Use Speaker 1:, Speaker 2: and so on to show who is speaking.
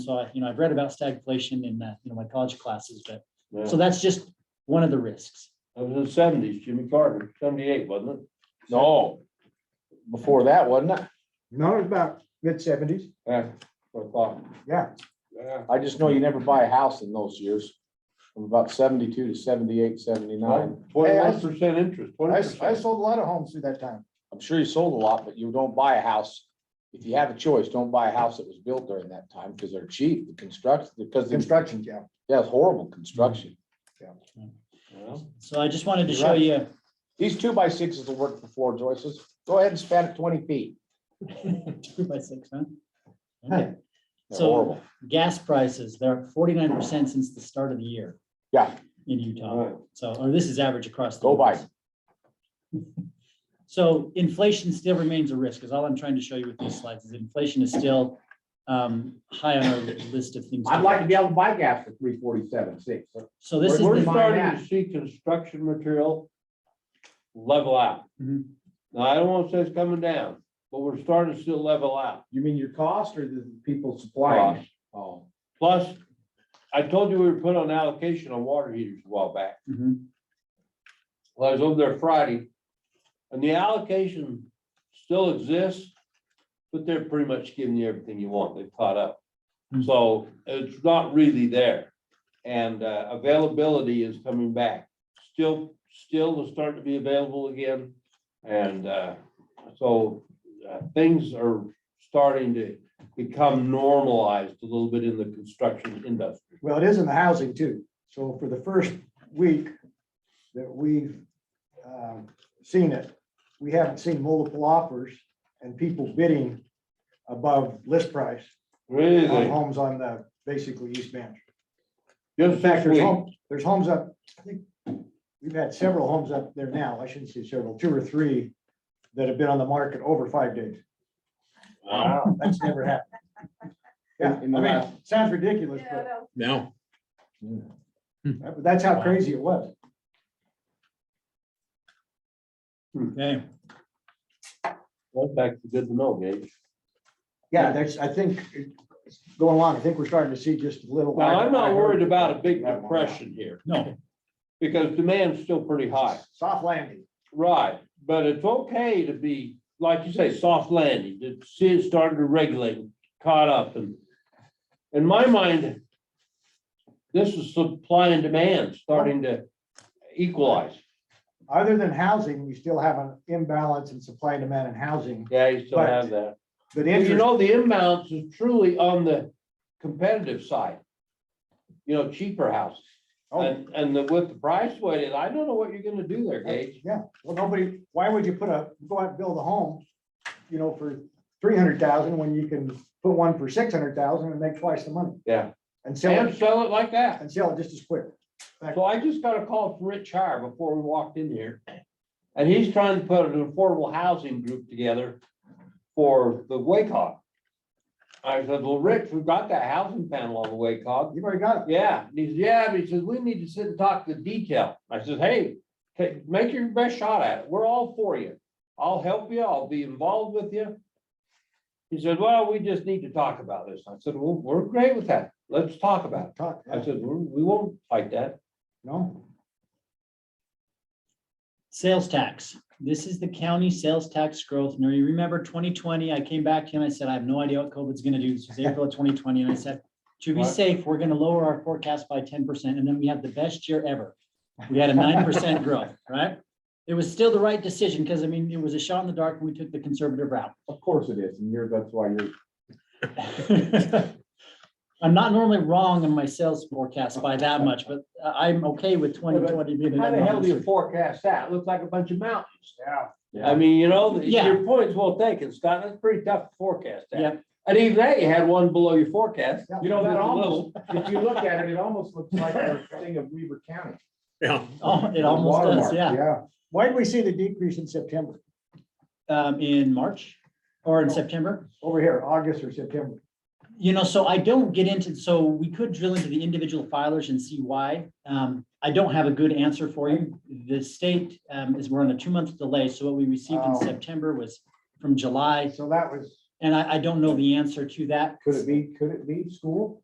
Speaker 1: So I, you know, I've read about stagflation in, uh, you know, my college classes, but,
Speaker 2: Yeah.
Speaker 1: so that's just one of the risks.
Speaker 2: That was in the seventies, Jimmy Carter, seventy-eight, wasn't it?
Speaker 3: No. Before that, wasn't it?
Speaker 4: No, it's about mid seventies,
Speaker 2: Yeah, what I thought.
Speaker 4: yeah.
Speaker 2: Yeah.
Speaker 3: I just know you never buy a house in those years. From about seventy-two to seventy-eight, seventy-nine.
Speaker 2: Twenty-one percent interest,
Speaker 4: I,
Speaker 2: twenty
Speaker 4: s- I
Speaker 2: percent.
Speaker 4: sold a lot of homes through that time.
Speaker 3: I'm sure you sold a lot, but you don't buy a house. If you have a choice, don't buy a house that was built during that time because they're cheap, the construction, because the
Speaker 4: Construction, yeah.
Speaker 3: Yeah, it's horrible construction.
Speaker 1: So I just wanted to
Speaker 3: You're
Speaker 1: show
Speaker 3: right.
Speaker 1: you,
Speaker 3: These two by sixes will work for floor joists. Go ahead and span it twenty feet.
Speaker 1: two by six, huh?
Speaker 4: Huh.
Speaker 1: Okay.
Speaker 3: They're
Speaker 1: So
Speaker 3: horrible.
Speaker 1: gas prices, they're forty-nine percent since the start of the year.
Speaker 3: Yeah.
Speaker 1: In Utah. So, or this is average across. the
Speaker 3: Go by.
Speaker 1: US. So inflation still remains a risk, is all I'm trying to show you with these slides, is inflation is still um, high on our list of things. to
Speaker 3: I'd like to
Speaker 1: watch.
Speaker 3: be able to buy gas for three forty-seven, six.
Speaker 1: So this
Speaker 2: We're
Speaker 1: is.
Speaker 2: we're
Speaker 1: the-
Speaker 2: starting to see construction material level out.
Speaker 1: Mhm.
Speaker 2: Now, I don't want to say it's coming down, but we're starting to see it level out.
Speaker 3: You mean your cost or the people
Speaker 2: Plus,
Speaker 3: Oh,
Speaker 2: plus, I told you we were put on allocation on water heaters a while back.
Speaker 1: Mhm.
Speaker 2: Well, I was over there Friday, and the allocation still exists, but they're pretty much giving you everything you want, they've caught up.
Speaker 1: Hmm.
Speaker 2: So it's not really there, and uh, availability is coming back, still, still is starting to be available again. And uh, so uh, things are starting to become normalized a little bit in the construction industry.
Speaker 4: Well, it is in the housing too. So for the first week that we've um, seen it, we haven't seen multiple offers and people bidding above list price on
Speaker 2: Really,
Speaker 4: homes on the, basically East Bend. In
Speaker 2: just
Speaker 4: fact,
Speaker 2: this
Speaker 4: there's
Speaker 2: week.
Speaker 4: homes, there's homes up, I think, we've had several homes up there now, I shouldn't say several, two or three that have been on the market over five days.
Speaker 2: Wow.
Speaker 4: That's never happened. Yeah, I
Speaker 3: In the
Speaker 4: mean,
Speaker 3: last-
Speaker 4: sounds ridiculous,
Speaker 5: Yeah,
Speaker 4: but
Speaker 5: no,
Speaker 6: No,
Speaker 4: that- that's how crazy it was.
Speaker 1: Okay,
Speaker 2: That's actually good to know, Gage.
Speaker 4: Yeah, that's, I think, going along, I think we're starting to see just a little.
Speaker 2: Well, I'm not worried about a big depression here,
Speaker 1: no,
Speaker 2: because demand's still pretty high.
Speaker 4: Soft landing.
Speaker 2: Right, but it's okay to be, like you say, soft landing, to see it starting to regulate, caught up and. In my mind, this is supply and demand starting to equalize.
Speaker 4: Other than housing, you still have an imbalance in supply and demand in housing,
Speaker 2: Yeah, you still have that.
Speaker 4: but
Speaker 2: And you
Speaker 4: interest,
Speaker 2: know, the imbalance is truly on the competitive side. You know, cheaper houses.
Speaker 4: oh,
Speaker 2: And, and the- with the price weighted, I don't know what you're gonna do there, Gage.
Speaker 4: yeah, well, nobody, why would you put a, go out and build a home, you know, for three hundred thousand when you can put one for six hundred thousand and make twice the money
Speaker 2: Yeah.
Speaker 4: and sell
Speaker 2: And
Speaker 4: it,
Speaker 2: sell it like that.
Speaker 4: and sell it just as quick.
Speaker 2: So I just got a call from Rich Hire before we walked in here. And he's trying to put an affordable housing group together for the WACOG. I said, well, Rich, we've got that housing panel on the WACOG.
Speaker 4: You've already got it.
Speaker 2: Yeah, and he says, yeah, but he says, we need to sit and talk the detail. I says, hey, take, make your best shot at it. We're all for you. I'll help you. I'll be involved with you. He said, well, we just need to talk about this. I said, well, we're great with that. Let's talk about it.
Speaker 4: Talk,
Speaker 2: I said, we we won't fight that.
Speaker 4: no,
Speaker 1: sales tax. This is the county sales tax growth. Now, you remember twenty twenty, I came back to you and I said, I have no idea what COVID's gonna do. This was April of twenty twenty, and I said, to be
Speaker 2: Right.
Speaker 1: safe, we're gonna lower our forecast by ten percent, and then we had the best year ever. We had a nine percent growth, right? It was still the right decision, because I mean, it was a shot in the dark, and we took the conservative route.
Speaker 3: Of course it is, and you're, that's why you're
Speaker 1: I'm not normally wrong in my sales forecast by that much, but uh, I'm okay with twenty twenty.
Speaker 2: How the hell do you forecast that? Looks like a bunch of mountains.
Speaker 4: yeah.
Speaker 2: I mean, you know, th-
Speaker 1: Yeah.
Speaker 2: your point's well taken, Scott. That's pretty tough to forecast
Speaker 1: Yeah.
Speaker 2: that. And even that, you had one below your forecast.
Speaker 4: Yeah.
Speaker 3: You know, that
Speaker 2: That's a
Speaker 3: almost, if you look at it, it almost looks like a thing of Weaver County.
Speaker 6: yeah.
Speaker 1: Oh, it almost does,
Speaker 3: Watermark,
Speaker 1: yeah.
Speaker 4: Yeah. Why did we see the decrease in September?
Speaker 1: um, in March or in September.
Speaker 4: Over here, August or September?
Speaker 1: You know, so I don't get into, so we could drill into the individual filers and see why. Um, I don't have a good answer for you. The state, um, is, we're on a two-month delay, so what we received in
Speaker 4: Oh.
Speaker 1: September was from July
Speaker 4: So that was
Speaker 7: And I, I don't know the answer to that.
Speaker 1: Could it be, could it be school?